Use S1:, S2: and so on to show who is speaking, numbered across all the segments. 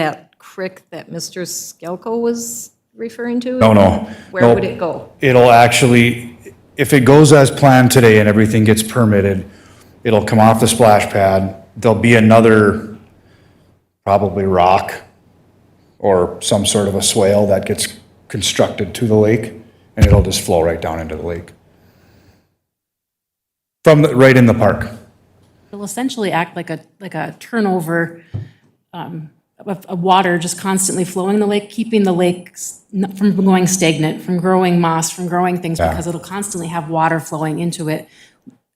S1: that creek that Mr. Skelko was referring to?
S2: No, no.
S1: Where would
S2: no.
S1: it go?
S2: It'll actually, if it goes as planned today and everything gets permitted, it'll come off the splash pad. There'll be another probably rock or some sort of a swale that gets constructed to the lake, and it'll just flow right down into the lake. From, the- right in the park.
S3: It'll essentially act like a, like a turnover um, of, of water just constantly flowing in the lake, keeping the lake s- n- from going stagnant, from growing moss, from growing things, because it'll constantly have water flowing into it,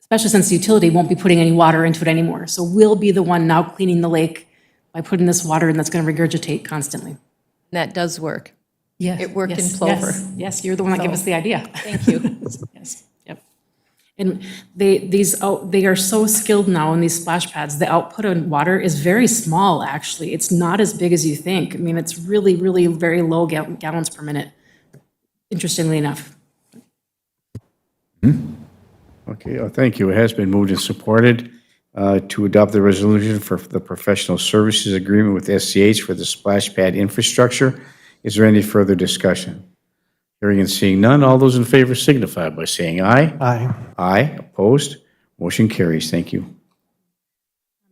S3: especially since the utility won't be putting any water into it anymore. So we'll be the one now cleaning the lake by putting this water in that's going to regurgitate constantly.
S4: That does work.
S3: Yes.
S4: It worked in
S3: yes,
S4: Plover.
S3: yes, Yes, you're the one that gave us the idea.
S4: Thank you.
S3: Yes, yep. And they, these, out they are so skilled now in these splash pads. The output on water is very small, actually. It's not as big as you think. I mean, it's really, really very low gal- gallons per minute, interestingly enough.
S5: Okay, uh, thank you. It has been moved and supported uh, to adopt the resolution for the professional services agreement with SCH for the splash pad infrastructure. Is there any further discussion? Hearing and seeing none, all those in favor signify by saying aye. Aye. Aye, opposed? Motion carries. Thank you.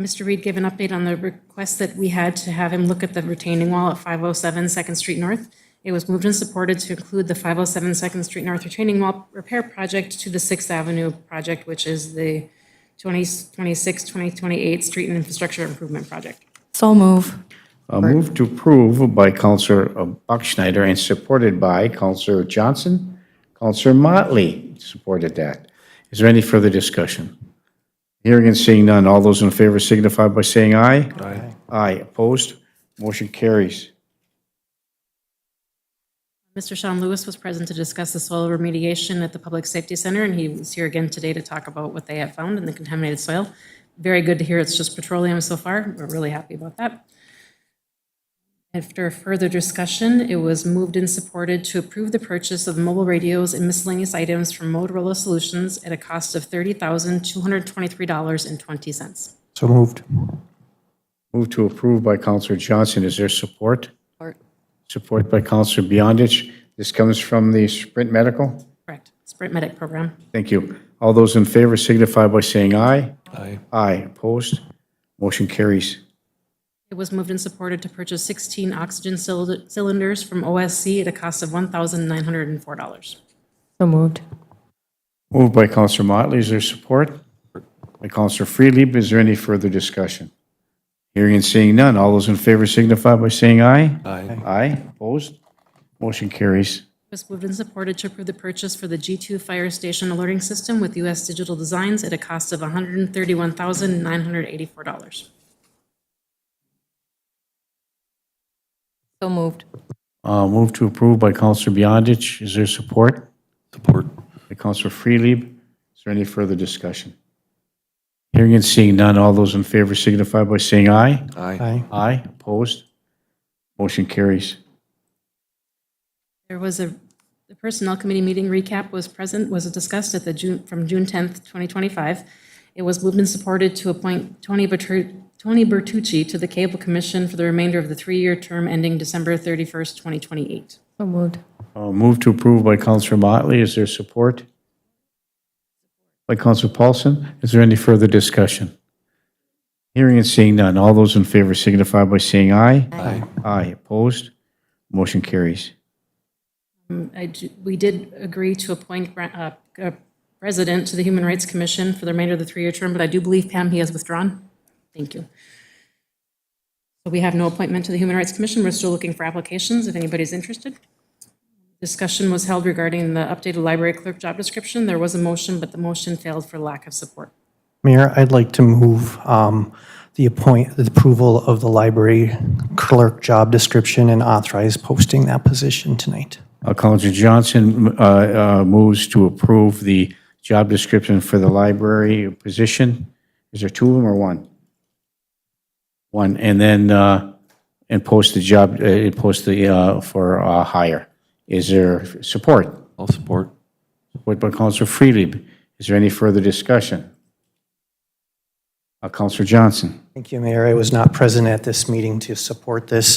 S3: Mr. Reed gave an update on the request that we had to have him look at the retaining wall at 507 Second Street North. It was moved and supported to include the 507 Second Street North retaining wall repair project to the Sixth Avenue project, which is the 2026, 2028 Street and Infrastructure Improvement Project.
S4: So move.
S5: A move Uh, to approve by Counselor uh, Buckschneider and supported by Counselor Johnson. Counselor Motley supported that. Is there any further discussion? Hearing and seeing none, all those in favor signify by saying aye. Aye. Aye, opposed? Motion carries.
S3: Mr. Sean Lewis was present to discuss the soil remediation at the Public Safety Center, and he was here again today to talk about what they have found in the contaminated soil. Very good to hear it's just petroleum so far. We're really happy about that. After further discussion, it was moved and supported to approve the purchase of mobile radios and miscellaneous items from Motorola Solutions at a cost of $30,223.20.
S6: So moved.
S5: Move to approve by Counselor Johnson. Is there support? Support by Counselor Beyondich. This comes from the Sprint Medical?
S3: Correct. Sprint Medic Program.
S5: Thank you. All those in favor signify by saying aye. Aye. Aye, opposed? Motion carries.
S3: It was moved and supported to purchase 16 oxygen cylind- cylinders from OSC at a cost of $1,904.
S4: So moved.
S5: Moved by Counselor Motley, is there support? By Counselor Freely, is there any further discussion? Hearing and seeing none, all those in favor signify by saying aye. Aye. Aye, opposed? Motion carries.
S3: It was moved and supported to approve the purchase for the G2 Fire Station Alerting System with US Digital Designs at a cost of $131,984.
S4: So moved.
S5: Uh, Moved to approve by Counselor Beyondich, is there support?
S7: Support.
S5: By Counselor Freely, is there any further discussion? Hearing and seeing none, all those in favor signify by saying aye.
S7: Aye.
S6: Aye.
S5: Aye, opposed? Motion carries.
S3: There was a, the Personnel Committee meeting recap was present, was discussed at the June, from June 10th, 2025. It was moved and supported to appoint Tony Bertu- Tony Bertucci to the Cable Commission for the remainder of the three-year term ending December 31st, 2028.
S4: So moved.
S5: Uh, Move to approve by Counselor Motley. Is there support? By Counselor Paulson. Is there any further discussion? Hearing and seeing none. All those in favor signify by saying aye. Aye. Aye. Opposed? Motion carries.
S3: Um, I ju- We did agree to appoint Bra- uh, a president to the Human Rights Commission for the remainder of the three-year term, but I do believe Pam, he has withdrawn. Thank you. So we have no appointment to the Human Rights Commission. We're still looking for applications if anybody's interested. Discussion was held regarding the updated library clerk job description. There was a motion, but the motion failed for lack of support.
S6: Mayor, I'd like to move um, the appoint, the approval of the library clerk job description and authorize posting that position tonight.
S5: Uh, Counselor Johnson uh, uh, moves to approve the job description for the library position. Is there two of them or one? One, and then, uh, and post the job, uh, and post the, uh, for uh, hire. Is there support?
S7: I'll support.
S5: Support by Counselor Freely. Is there any further discussion? Uh, Counselor Johnson?
S6: Thank you, Mayor. I was not present at this meeting to support this.